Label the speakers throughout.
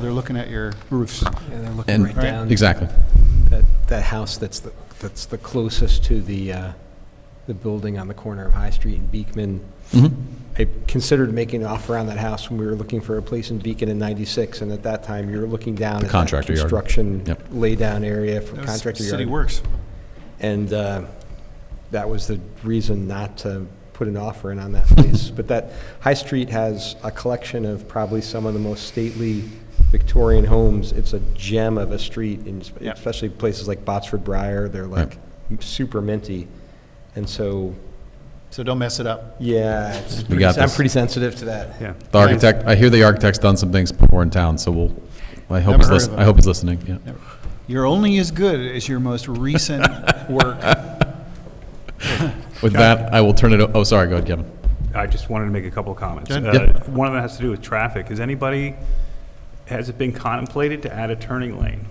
Speaker 1: They're looking at your roofs.
Speaker 2: And they're looking
Speaker 3: And-
Speaker 2: right down.
Speaker 3: Exactly.
Speaker 2: That, that house that's, the that's the closest to the, uh, the building on the corner of High Street and Beekman.
Speaker 1: Mm-hmm.
Speaker 2: I considered making an offer on that house when we were looking for a place in Beacon in 96, and at that time, you were looking down. at that
Speaker 3: contractor yard.
Speaker 2: Construction
Speaker 3: Yep.
Speaker 2: laydown area for
Speaker 1: That was
Speaker 2: contractor
Speaker 1: City
Speaker 2: yard.
Speaker 1: Works.
Speaker 2: And uh, that was the reason not to put an offer in on that place. But that, High Street has a collection of probably some of the most stately Victorian homes. It's a gem of a street, and es-
Speaker 1: Yeah.
Speaker 2: especially places like Botsford Briar, they're
Speaker 3: Right.
Speaker 2: like super minty. And so,
Speaker 1: So don't mess it up.
Speaker 2: yeah, it's
Speaker 3: We
Speaker 2: pretty-
Speaker 3: got
Speaker 2: I'm
Speaker 3: this.
Speaker 2: pretty sensitive to that.
Speaker 4: Yeah.
Speaker 3: The architect, I hear the architect's done some things before in town, so we'll, I hope
Speaker 1: Never
Speaker 3: he's
Speaker 1: heard
Speaker 3: listening,
Speaker 1: of
Speaker 3: I
Speaker 1: it.
Speaker 3: hope he's listening, yeah.
Speaker 1: You're only as good as your most recent work.
Speaker 3: With that, I will turn it, o- oh, sorry, go ahead, Kevin.
Speaker 4: I just wanted to make a couple of comments.
Speaker 1: Good.
Speaker 4: Uh,
Speaker 3: Yep.
Speaker 4: One of them has to do with traffic. Is anybody, has it been contemplated to add a turning lane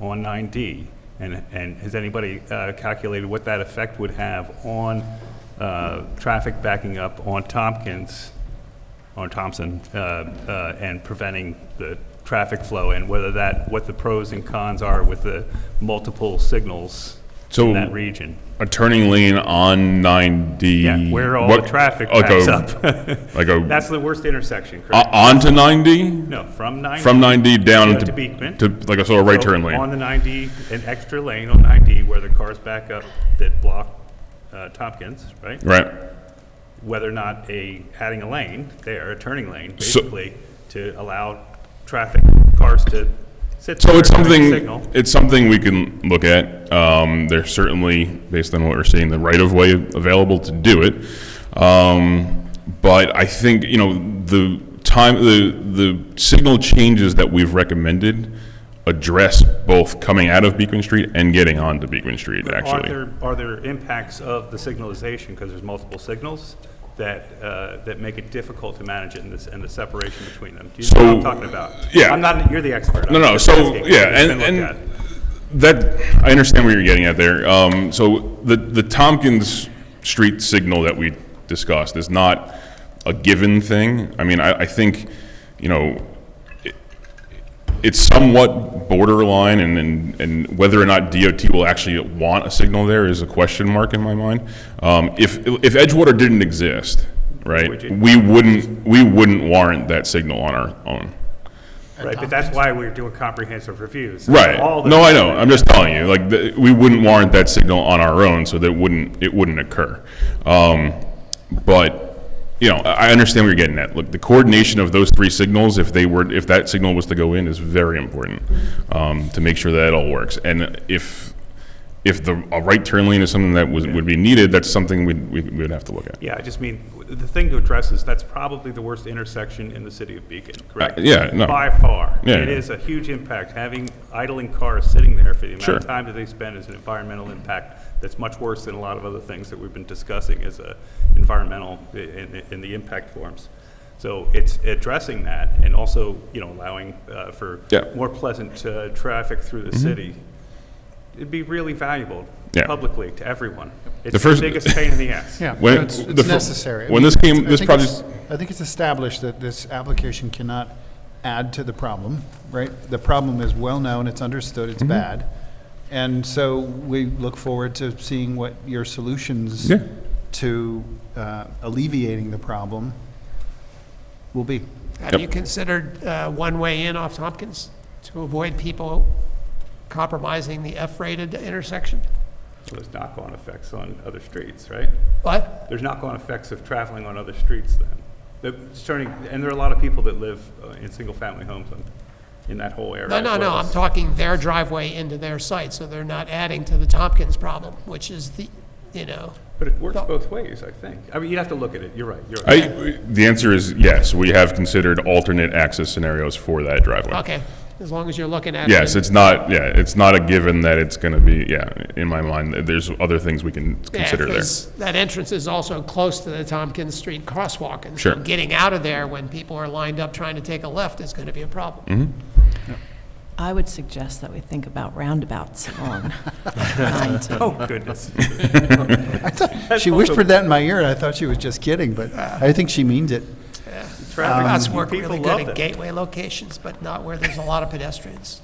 Speaker 4: on 9D? And, and has anybody uh, calculated what that effect would have on uh, traffic backing up on Tompkins, on Thompson, uh, uh, and preventing the traffic flow? And whether that, what the pros and cons are with the multiple signals
Speaker 5: So-
Speaker 4: in that region?
Speaker 5: A turning lane on 9D.
Speaker 4: Yeah, where all the
Speaker 5: What-
Speaker 4: traffic
Speaker 5: like
Speaker 4: backs
Speaker 5: a-
Speaker 4: up.
Speaker 5: Like a,
Speaker 4: That's the worst intersection,
Speaker 5: o-
Speaker 4: correct?
Speaker 5: onto 90?
Speaker 4: No, from 90.
Speaker 5: Uh, From 90 down
Speaker 4: Yeah,
Speaker 5: into.
Speaker 4: to Beekman.
Speaker 5: To, like a sort of right
Speaker 4: On
Speaker 5: turn lane.
Speaker 4: the 90, an extra lane on 90 where the cars back up that block uh, Tompkins, right?
Speaker 5: Right.
Speaker 4: Whether or not a, adding a lane there, a turning lane,
Speaker 5: So-
Speaker 4: basically, to allow traffic, cars to sit there.
Speaker 5: So it's
Speaker 4: during the
Speaker 5: something,
Speaker 4: Signal.
Speaker 5: it's something we can look at. Um, there's certainly, based on what we're seeing, the right of way available to do it. Um, but I think, you know, the time, the, the signal changes that we've recommended address both coming out of Beekman Street and getting onto Beekman Street,
Speaker 4: Are
Speaker 5: actually.
Speaker 4: there, are there impacts of the signalization, because there's multiple signals, that, uh, that make it difficult to manage it and this, and the separation between them? Do you know what I'm
Speaker 5: So,
Speaker 4: talking about?
Speaker 5: yeah.
Speaker 4: I'm not, you're the expert. I'm
Speaker 5: No, no,
Speaker 4: just
Speaker 5: so,
Speaker 4: asking.
Speaker 5: yeah,
Speaker 4: It's been
Speaker 5: and-
Speaker 4: looked
Speaker 5: and
Speaker 4: at.
Speaker 5: That, I understand where you're getting at there. Um, so the, the Tompkins Street signal that we discussed is not a given thing. I mean, I, I think, you know, it- it's somewhat borderline and, and, and whether or not DOT will actually want a signal there is a question mark in my mind. Um, if, if Edgewater didn't exist, right,
Speaker 4: Would you-
Speaker 5: we wouldn't, we wouldn't warrant that signal on our own.
Speaker 4: Right, but that's why we're doing comprehensive reviews.
Speaker 5: Right.
Speaker 4: All the-
Speaker 5: No, I know. I'm just telling you, like, the- we wouldn't warrant that signal on our own, so that wouldn't, it wouldn't occur. Um, But, you know, I I understand what you're getting at. Look, the coordination of those three signals, if they were, if that signal was to go in, is very important um, to make sure that it all works. And if, if the, a right turn lane is something that was, would be needed, that's something we'd, we would have to look at.
Speaker 4: Yeah, I just mean, w- the thing to address is that's probably the worst intersection in the city of Beacon, correct?
Speaker 5: Uh, yeah, no.
Speaker 4: By far.
Speaker 5: Yeah,
Speaker 4: It
Speaker 5: yeah.
Speaker 4: is a huge impact. Having idling cars sitting there for the amount
Speaker 5: Sure.
Speaker 4: of time that they spend is an environmental impact that's much worse than a lot of other things that we've been discussing as a environmental, i- in, in the impact forms. So it's addressing that and also, you know, allowing uh, for
Speaker 5: Yeah. Mm-hmm.
Speaker 4: more pleasant uh, traffic through the city. It'd be really valuable
Speaker 5: Yeah.
Speaker 4: publicly to everyone.
Speaker 5: The
Speaker 4: It's the
Speaker 5: first-
Speaker 4: biggest pain in the ass.
Speaker 1: Yeah,
Speaker 5: When-
Speaker 1: it's
Speaker 5: the
Speaker 1: it's
Speaker 5: fir-
Speaker 1: necessary. I mean,
Speaker 5: when this came-
Speaker 1: it's- I
Speaker 5: this
Speaker 1: think it's-
Speaker 5: project-
Speaker 1: I think it's established that this application cannot add to the problem, right? The problem is well-known, it's understood,
Speaker 5: Mm-hmm.
Speaker 1: it's bad. And so we look forward to seeing what your solutions
Speaker 5: Yeah.
Speaker 1: to uh, alleviating the problem will be.
Speaker 6: Have
Speaker 5: Yep.
Speaker 6: you considered uh, one-way in off Tompkins to avoid people compromising the F-rated intersection?
Speaker 4: So There's knock-on effects on other streets, right?
Speaker 6: What?
Speaker 4: There's knock-on effects of traveling on other streets then. The turning, and there are a lot of people that live uh, in single-family homes on- in that whole area.
Speaker 6: No,
Speaker 4: as
Speaker 6: no, no,
Speaker 4: well.
Speaker 6: I'm talking their driveway into their site, so they're not adding to the Tompkins problem, which is the, you know,
Speaker 4: But it works both ways, I think. I mean, you'd have to look at it, you're right, you're right.
Speaker 5: I, the answer is yes, we have considered alternate access scenarios for that driveway.
Speaker 6: okay, as long as you're looking at it.
Speaker 5: Yes,
Speaker 6: and-
Speaker 5: it's not, yeah, it's not a given that it's gonna be, yeah, in my mind, there's other things we can
Speaker 6: Yeah,
Speaker 5: consider there.
Speaker 6: 'cause That entrance is also close to the Tompkins Street crosswalk, and so
Speaker 5: Sure.
Speaker 6: getting out of there when people are lined up trying to take a left is going to be a problem.
Speaker 5: Mm-hmm.
Speaker 7: I would suggest that we think about roundabouts on 19.
Speaker 4: Oh, goodness.
Speaker 1: She whispered that in my ear, and I thought she was just kidding, but I think she means it.
Speaker 4: Traffic,
Speaker 6: Routes
Speaker 4: you
Speaker 6: work
Speaker 4: people
Speaker 6: really
Speaker 4: love
Speaker 6: good
Speaker 4: them.
Speaker 6: at gateway locations, but not where there's a lot of pedestrians.